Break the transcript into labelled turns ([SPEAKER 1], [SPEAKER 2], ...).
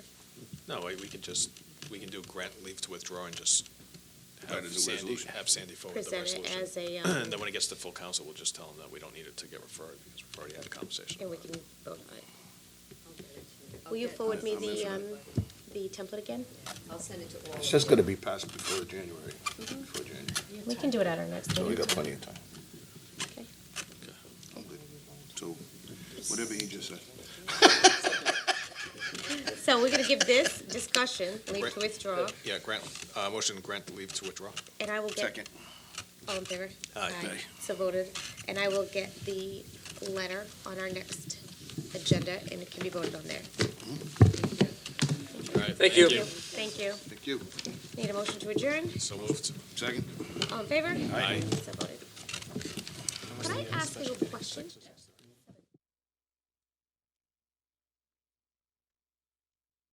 [SPEAKER 1] No, we we can just, we can do grant leave to withdraw and just
[SPEAKER 2] Right,
[SPEAKER 1] have
[SPEAKER 2] as a
[SPEAKER 1] Sandy,
[SPEAKER 2] resolution.
[SPEAKER 1] have Sandy forward the
[SPEAKER 3] present it
[SPEAKER 1] resolution.
[SPEAKER 3] as a, um,
[SPEAKER 1] And then when it gets to full council, we'll just tell them that we don't need it to get referred because we've already had a conversation.
[SPEAKER 3] and we
[SPEAKER 1] about
[SPEAKER 3] can
[SPEAKER 1] it.
[SPEAKER 3] vote on it.
[SPEAKER 4] I'll
[SPEAKER 3] Will you
[SPEAKER 4] get-
[SPEAKER 3] forward me
[SPEAKER 2] I'm
[SPEAKER 3] the, um,
[SPEAKER 2] listening.
[SPEAKER 3] the template again?
[SPEAKER 4] I'll send it to all.
[SPEAKER 2] It's
[SPEAKER 4] of
[SPEAKER 2] just
[SPEAKER 4] them.
[SPEAKER 2] gonna be passed before January, before January,
[SPEAKER 3] We can do it at our next
[SPEAKER 2] so we
[SPEAKER 3] meeting.
[SPEAKER 2] got plenty of time.
[SPEAKER 3] Okay.
[SPEAKER 2] I'm good. So, whatever he just said.
[SPEAKER 3] So we're gonna give this discussion, leave
[SPEAKER 1] Right.
[SPEAKER 3] to withdraw,
[SPEAKER 1] Yeah, grant, uh, motion to grant the leave to withdraw.
[SPEAKER 3] and I will get, all in favor?
[SPEAKER 1] Aye. Aye.
[SPEAKER 3] So voted, and I will get the letter on our next agenda, and it can be voted on there.
[SPEAKER 1] All right,
[SPEAKER 5] Thank you.
[SPEAKER 3] Thank you.
[SPEAKER 2] Thank you.
[SPEAKER 3] Need a motion to adjourn?
[SPEAKER 1] So moved.
[SPEAKER 2] Second?
[SPEAKER 3] All in favor?
[SPEAKER 1] Aye.
[SPEAKER 3] So voted. Could I ask you a question?